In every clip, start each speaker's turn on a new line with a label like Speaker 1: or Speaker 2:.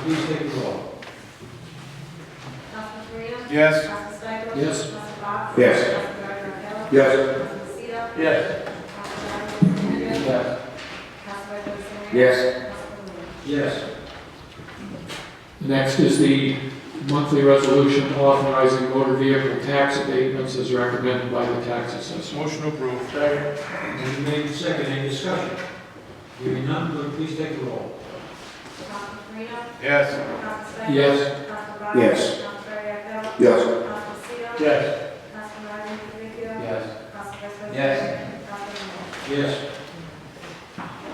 Speaker 1: please take the roll.
Speaker 2: Councilman Corino?
Speaker 3: Yes.
Speaker 2: Councilman
Speaker 1: Yes.
Speaker 2: Stieglus? Councilman Box?
Speaker 4: Yes.
Speaker 2: Councilman Gardner Hill?
Speaker 4: Yes.
Speaker 2: Councilman Lucia?
Speaker 3: Yes.
Speaker 2: Councilman Rodriguez?
Speaker 1: Yes.
Speaker 2: Councilman Rodriguez?
Speaker 4: Yes.
Speaker 2: Councilman Lee?
Speaker 1: Yes.
Speaker 5: Next is the monthly resolution authorizing motor vehicle tax abatements as recommended by the tax assessor.
Speaker 3: Motion approved. Second.
Speaker 1: Motion made in second, any discussion? Hearing none, clerk, please take the roll.
Speaker 2: Councilman Corino?
Speaker 3: Yes.
Speaker 2: Councilman Stieglus?
Speaker 5: Yes.
Speaker 2: Councilman Box?
Speaker 4: Yes.
Speaker 2: Councilman Gardner Hill?
Speaker 4: Yes.
Speaker 2: Councilman Lucia?
Speaker 3: Yes.
Speaker 2: Councilman Rodriguez?
Speaker 1: Yes.
Speaker 2: Councilman Rodriguez?
Speaker 1: Yes.
Speaker 2: Councilman Lee?
Speaker 1: Yes.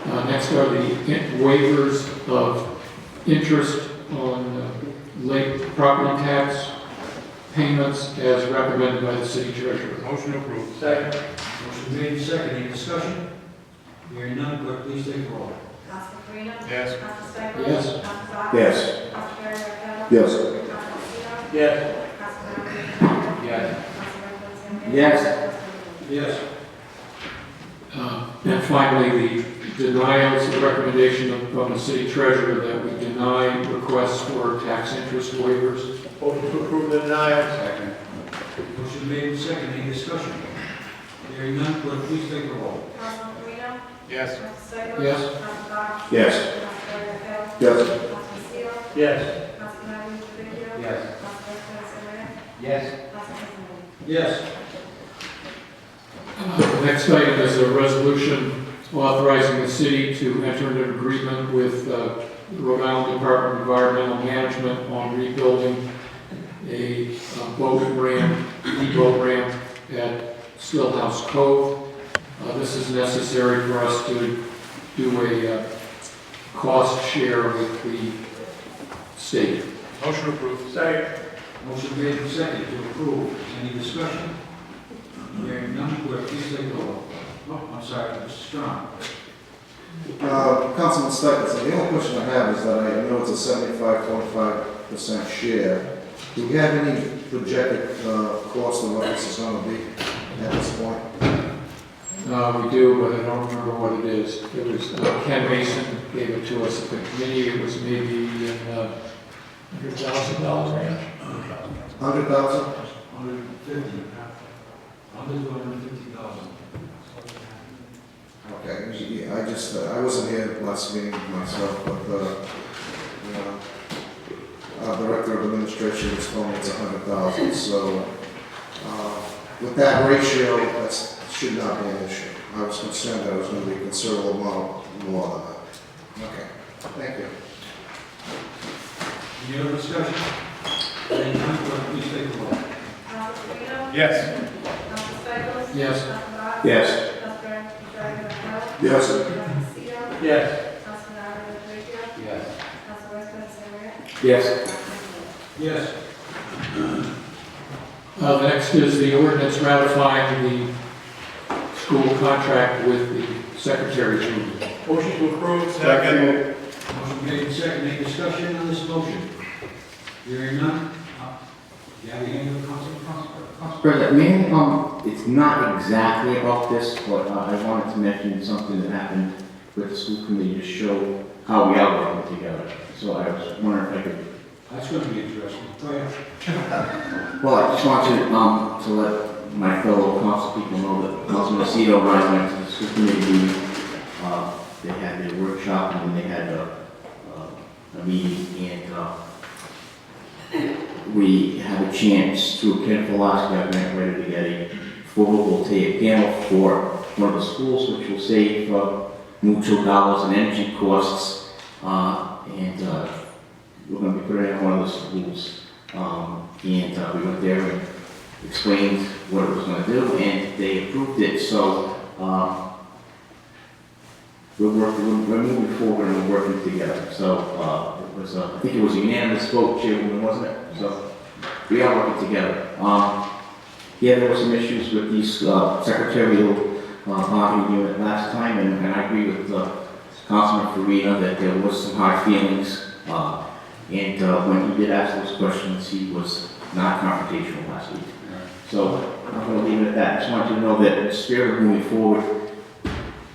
Speaker 5: Uh, Next are the in- waivers of interest on uh, late property tax payments as recommended by the city treasurer.
Speaker 3: Motion approved. Second.
Speaker 1: Motion made in second, any discussion? Hearing none, clerk, please take the roll.
Speaker 2: Councilman Corino?
Speaker 3: Yes.
Speaker 2: Councilman Stieglus?
Speaker 5: Yes.
Speaker 2: Councilman Box?
Speaker 4: Yes.
Speaker 2: Councilman Gardner Hill?
Speaker 4: Yes.
Speaker 2: Councilman Lucia?
Speaker 3: Yes.
Speaker 2: Councilman Rodriguez?
Speaker 3: Yes.
Speaker 2: Councilman Rodriguez?
Speaker 4: Yes.
Speaker 2: Councilman Lee?
Speaker 1: Yes.
Speaker 5: Uh, And finally, the denials, the recommendation of- from the city treasurer that we deny requests for tax interest waivers.
Speaker 3: Motion to approve the denial. Second.
Speaker 1: Motion made in second, any discussion? Hearing none, clerk, please take the roll.
Speaker 2: Councilman Corino?
Speaker 3: Yes.
Speaker 5: Yes.
Speaker 4: Yes. Yes.
Speaker 3: Yes.
Speaker 1: Yes. Yes.
Speaker 5: Uh, Next item is a resolution authorizing the city to enter into an agreement with uh, Rhode Island Department of Environmental Management on rebuilding a uh, boat ramp, depot ramp at Stillhouse Cove. Uh, This is necessary for us to do a uh, cost share with the state.
Speaker 3: Motion approved. Second.
Speaker 1: Motion made in second to approve, any discussion? Hearing none, clerk, please take the roll. Oh, I'm sorry, Mr. Strong.
Speaker 4: Uh, Councilman Stipes, the only question I have is that I know it's a seventy-five, twenty-five percent share. Do we have any projected uh, cost of what this is going to be at this point?
Speaker 5: Uh, we do, but I don't remember what it is. It was, uh, Ken Mason gave it to us at the committee, it was maybe in, uh, hundred thousand dollars range.
Speaker 4: Hundred thousand?
Speaker 1: Hundred and fifty, under two hundred and fifty thousand.
Speaker 4: Okay, yeah, I just, uh, I wasn't here last meeting myself, but, uh, you know, our Director of Administration was calling it's a hundred thousand, so, uh, with that ratio, that's, should not be an issue. I was concerned that it was gonna be a considerable amount more than that. Okay, thank you.
Speaker 1: Any other discussion? Hearing none, clerk, please take the roll.
Speaker 3: Yes.
Speaker 5: Yes.
Speaker 4: Yes. Yes.
Speaker 3: Yes.
Speaker 1: Yes.
Speaker 4: Yes.
Speaker 1: Yes.
Speaker 5: Uh, the next is the ordinance ratifying the school contract with the Secretary General.
Speaker 3: Motion to approve. Second.
Speaker 1: Motion made in second, any discussion on this motion? Hearing none? Uh, You have any other council, council, council?
Speaker 6: President, may I, um, it's not exactly about this, but uh, I wanted to mention something that happened with the school committee to show how we are working together. So I was wondering if I could,
Speaker 1: That's going to be interesting. Go ahead.
Speaker 6: well, I just wanted to, um, to let my fellow council people know that Councilman Lucido and I went to the school committee meeting. Uh, They had their workshop and then they had a, uh, a meeting and, uh, we had a chance through Ken Pulaski, I grant writer to get a photovoltaic panel for one of the schools, which will save uh, mutual dollars in energy costs. Uh, And uh, we're going to be putting it in one of the schools. Um, And uh, we went there and explained what it was going to do, and they approved it. So uh, we're working, we're moving forward and we're working together. So uh, it was, uh, I think it was unanimous vote, Chairwoman, wasn't it? So we are working together. Um, Yeah, there were some issues with these uh, secretarial uh, body unit last time, and and I agree with uh, Councilman Farina that there was some hard feelings. uh, And uh, when he did ask those questions, he was not confrontational last week. So I'm going to leave it at that. Just wanted you to know that in the spirit of moving forward,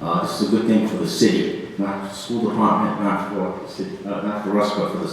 Speaker 6: uh, this is a good thing for the city, not for the school department, not for, the city- uh, not for us, but for the